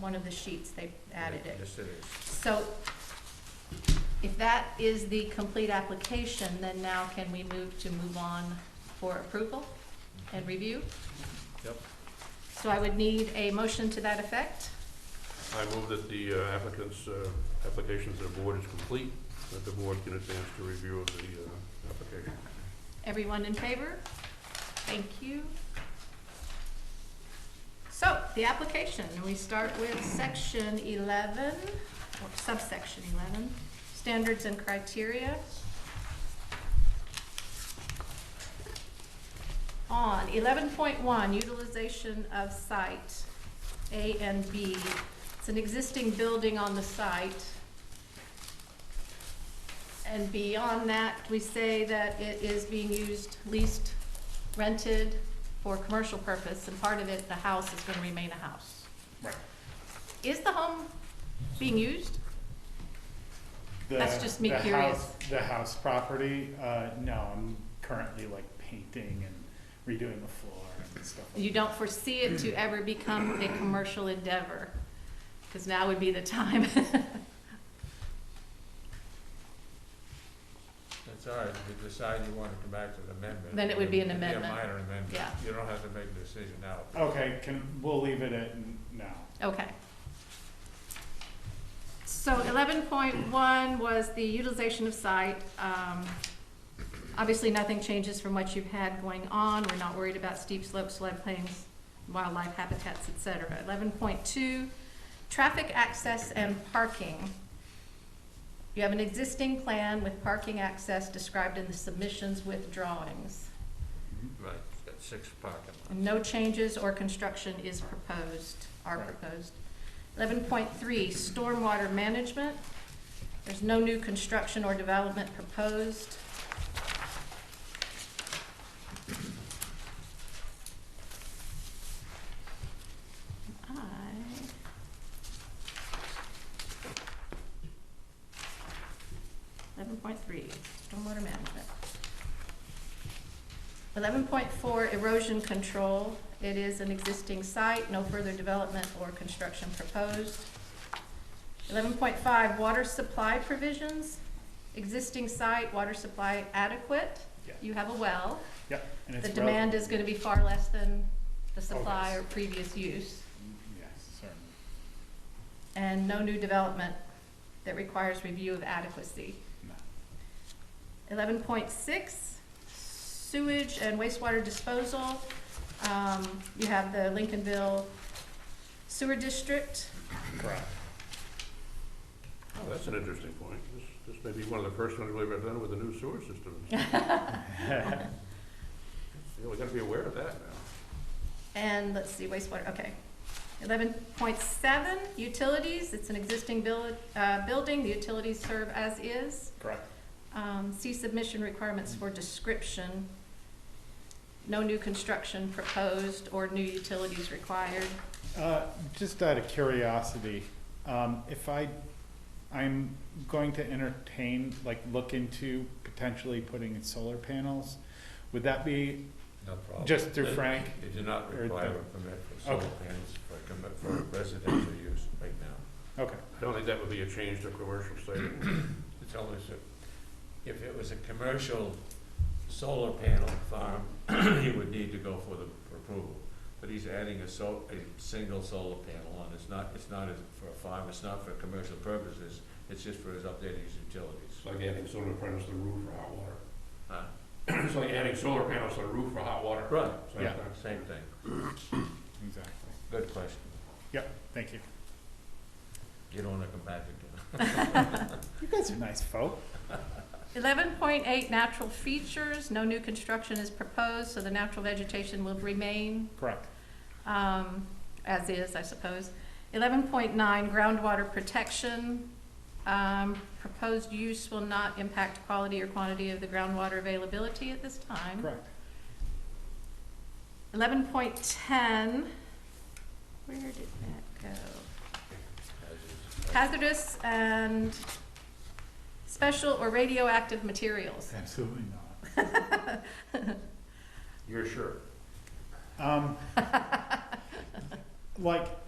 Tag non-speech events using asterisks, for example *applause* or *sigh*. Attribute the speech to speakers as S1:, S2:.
S1: one of the sheets, they added it.
S2: Yes, it is.
S1: So if that is the complete application, then now can we move to move on for approval and review?
S2: Yep.
S1: So I would need a motion to that effect.
S3: I move that the uh, applicant's, uh, application to the board is complete, that the board can advance to review of the uh, application.
S1: Everyone in favor? Thank you. So, the application, we start with section eleven, or subsection eleven, standards and criteria. On eleven point one, utilization of site, A and B. It's an existing building on the site. And beyond that, we say that it is being used, leased, rented for commercial purpose, and part of it, the house is gonna remain a house.
S4: Right.
S1: Is the home being used? That's
S4: The-
S1: just me
S4: the
S1: curious.
S4: house- The house property, uh, no, I'm currently like painting and redoing the floor and stuff. like
S1: You don't foresee it to ever become a commercial endeavor, because now would be the time. *laughs*
S2: It's all right, if you decide you want to come back to the amendment.
S1: Then it would be an
S2: it'd
S1: amendment.
S2: a minor amendment.
S1: Yeah.
S2: You don't have to make a decision now.
S4: that. Okay, can, we'll leave it at n- no.
S1: Okay. So eleven point one was the utilization of site. Um, Obviously, nothing changes from what you've had going on. We're not worried about steep slopes, floodplains, wildlife habitats, et cetera. Eleven point two, traffic access and parking. You have an existing plan with parking access described in the submissions with drawings. Mm-hmm.
S2: Right, it's got six parking lots.
S1: No changes or construction is proposed, are
S4: Right.
S1: proposed. Eleven point three, stormwater management. There's no new construction or development proposed. I Eleven point three, stormwater management. Eleven point four, erosion control. It is an existing site, no further development or construction proposed. Eleven point five, water supply provisions. Existing site, water supply adequate.
S4: Yeah.
S1: You have a well.
S4: Yep. and it's
S1: The
S4: rel-
S1: demand is gonna be far less than the supply
S4: yes.
S1: or previous use.
S4: Mm-hmm, Yes, certainly.
S1: And no new development that requires review of adequacy.
S4: No.
S1: Eleven point six, sewage and wastewater disposal. Um, you have the Lincolnville Sewer District. *laughs*
S4: Correct.
S3: Oh, that's an interesting point. This, this may be one of the first ones we've ever done with a new sewer system. Yeah, we gotta be aware of that now.
S1: And let's see, wastewater, okay. Eleven point seven, utilities, it's an existing buil- uh, building, the utilities serve as is.
S4: Correct.
S1: Um, see submission requirements for description. No new construction proposed or new utilities required.
S4: *laughs* Uh, Just out of curiosity, um, if I, I'm going to entertain, like, look into potentially putting in solar panels, would that be
S2: No
S5: Oh,
S2: problem.
S4: just through Frank?
S2: You do not
S4: Or
S2: require
S4: the-
S2: a permit for solar
S4: Okay.
S2: panels for comm- for residential use right now.
S4: Okay,
S3: I don't think that would be a change to commercial setting.
S5: It's always a, if it was a commercial solar panel farm, *clears throat* he would need to go for the for approval. But he's adding a sol, a single solar panel on, it's not, it's not a- for a farm, it's not for commercial purposes, it's just for his updating his utilities.
S3: It's like adding solar panels to the roof for hot water. *clears throat*
S5: Huh?
S3: It's like adding solar panels to the roof for hot water.
S5: Right,
S3: Same
S4: Yeah.
S3: thing.
S5: same thing,
S4: exactly.
S5: good question,
S4: Thank you.
S5: you don't wanna come back again.
S4: You guys are nice folk.
S1: Eleven point eight, natural features, no new construction is proposed, so the natural vegetation will remain,
S4: Correct.
S1: um, as is, I suppose. Eleven point nine, groundwater protection, um, proposed use will not impact quality or quantity of the groundwater availability at this time.
S4: Correct.
S1: Eleven point ten, where did that go? Hazardous and special or radioactive materials.
S4: Absolutely not.
S3: You're sure?
S4: Um, *laughs* like